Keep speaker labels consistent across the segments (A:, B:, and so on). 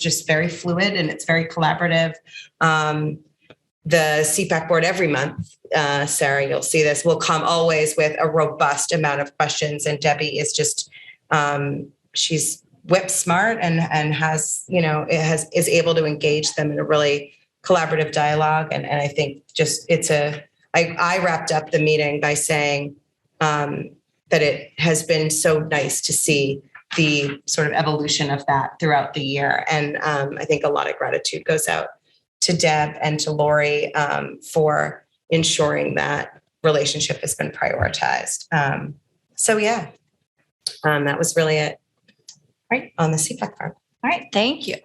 A: just very fluid and it's very collaborative. Um, the CPAC board every month, uh, Sarah, you'll see this, will come always with a robust amount of questions. And Debbie is just, um, she's whip smart and, and has, you know, it has, is able to engage them in a really collaborative dialogue. And, and I think just, it's a, I, I wrapped up the meeting by saying, um, that it has been so nice to see the sort of evolution of that throughout the year. And um, I think a lot of gratitude goes out to Deb and to Lori um, for ensuring that relationship has been prioritized. Um, so yeah, um, that was really it. Right on the E CPAC farm.
B: All right, thank you.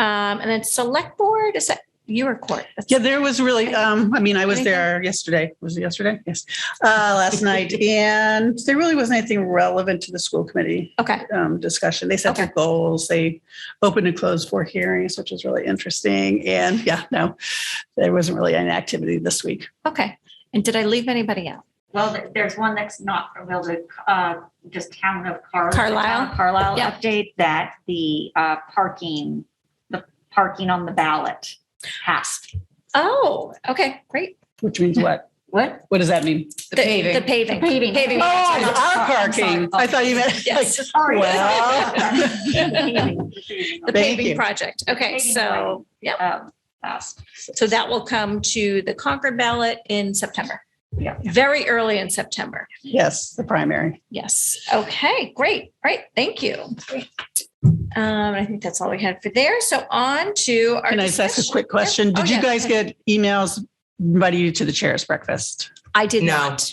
B: Um, and then select board, is that your court? That's-
C: Yeah, there was really, um, I mean, I was
B: Anything?
C: there yesterday, was it yesterday? Yes, uh, last night. And there really wasn't anything relevant to the school committee
B: Okay,
C: um, discussion. They set their goals, they opened and closed four hearings, which was really interesting. And yeah, no, there wasn't really any activity this week.
B: okay. And did I leave anybody out?
D: Well, th- there's one that's not real, the, uh, just town of Car-
B: Carlisle?
D: town of Carlisle
B: Yeah.
D: update that the, uh, parking, the parking on the ballot passed.
B: Oh, okay, great.
C: Which means what?
D: What?
C: What does that mean?
B: The paving. The paving.
D: Paving.
B: Paving.
C: Oh, our parking. I thought you meant.
B: Yes.
D: Sorry.
C: Well.
D: Paving.
B: The
C: Thank you.
B: paving project. Okay,
D: Paving
B: so, yeah,
D: Um, Passed.
B: so that will come to the Concord ballot in September.
D: Yeah.
B: Very early in September.
C: Yes, the primary.
B: Yes. Okay, great. All right, thank you. Um, I think that's all we had for there. So on to our.
C: Can I just ask a
B: discussion-
C: quick question?
B: Oh,
C: Did you
B: yeah.
C: guys get emails inviting you to the chair's breakfast?
B: I did
A: No.
B: not.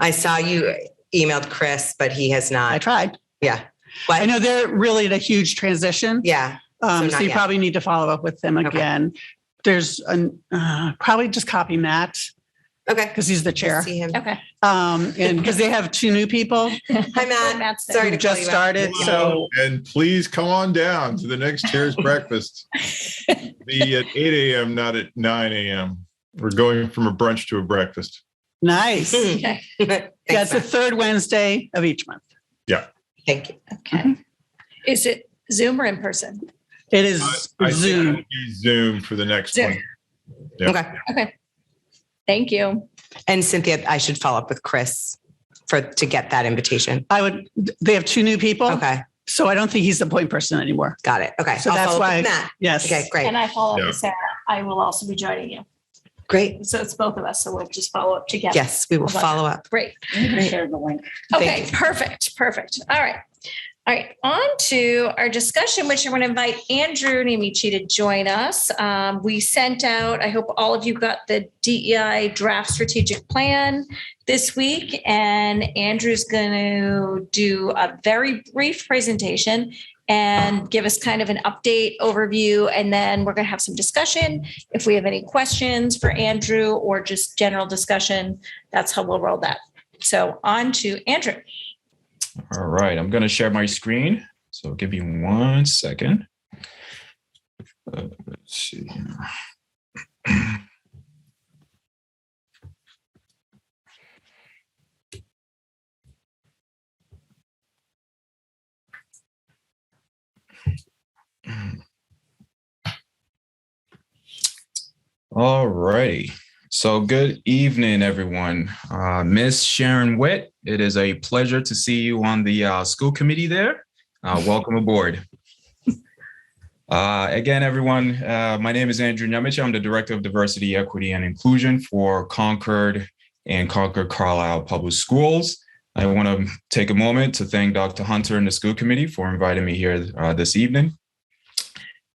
A: I saw you emailed Chris, but he has
C: I
A: not.
C: tried.
A: Yeah.
C: I know they're really at a huge transition.
A: Yeah.
C: Um,
A: So
C: so
A: not
C: you
A: yet.
C: probably need to follow up with them
A: Okay.
C: again. There's an, uh, probably just copy Matt
A: Okay.
C: because he's the
A: We'll
C: chair.
A: See him.
B: Okay.
C: Um, and because they have two new people
A: Hi, Matt.
B: Matt's there.
A: Sorry to call
C: who just
A: you out.
C: started. So
E: And please come on down to the next chair's breakfast. Be at eight AM, not at nine AM. We're going from a brunch to a breakfast.
C: nice.
A: Mm.
B: Okay.
A: Thanks,
C: That's the
A: Matt.
C: third Wednesday of each month.
A: Thank you.
B: Okay. Is it Zoom or in person?
C: It
E: I-
C: is
E: I think
C: Zoom.
E: I'll do Zoom for the next
B: Zoom.
E: one. Yeah.
A: Okay.
B: Thank you.
A: And Cynthia, I should follow up with Chris for to get that invitation.
C: I would, they have two new people.
A: Okay.
C: So I don't think he's the point person anymore.
A: Got it. Okay.
C: Oh. So
A: I'll
C: that's
A: follow up
C: why-
A: with Matt.
C: Yes.
A: Okay. Great.
F: And I follow up
E: Yeah.
F: with Sarah. I will also be joining you.
A: Great.
F: So it's both of us. So we'll just follow up together.
A: Yes. We will
F: Love it.
A: follow up.
B: Great.
D: You can share the link.
A: Thank
B: Okay,
A: you.
B: perfect, perfect. All right. All right, on to our discussion, which I'm going to invite Andrew Nemichi to join us. Um, we sent out, I hope all of you got the DEI draft strategic plan this week, and Andrew's going to do a very brief presentation and give us kind of an update overview, and then we're going to have some discussion. If we have any questions for Andrew or just general discussion, that's how we'll roll that. So on to Andrew.
G: All right, I'm going to share my screen. So give me one second. Uh, let's see. here. All righty. So good evening, everyone. Uh, Miss Sharon Witt, it is a pleasure to see you on the uh, school committee there. Uh, welcome aboard. Uh, again, everyone, uh, my name is Andrew Nemich. I'm the Director of Diversity, Equity, and Inclusion for Concord and Concord Carlisle Public Schools. I want to take a moment to thank Dr. Hunter and the school committee for inviting me here uh, this evening.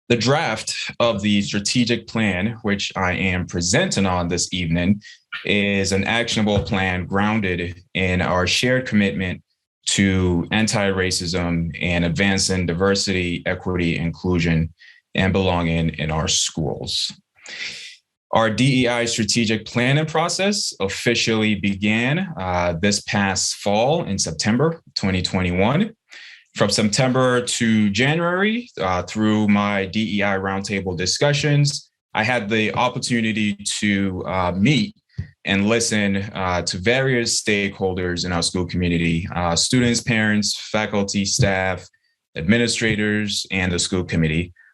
G: The draft of the strategic plan, which I am presenting on this evening, is an actionable plan grounded in our shared commitment to anti-racism and advancing diversity, equity, inclusion, and belonging in our schools. Our DEI strategic planning process officially began uh, this past fall in September 2021. From September to January, uh, through my DEI roundtable discussions, I had the opportunity to uh, meet and listen uh, to various stakeholders in our school community uh, students, parents, faculty, staff, administrators, and the school committee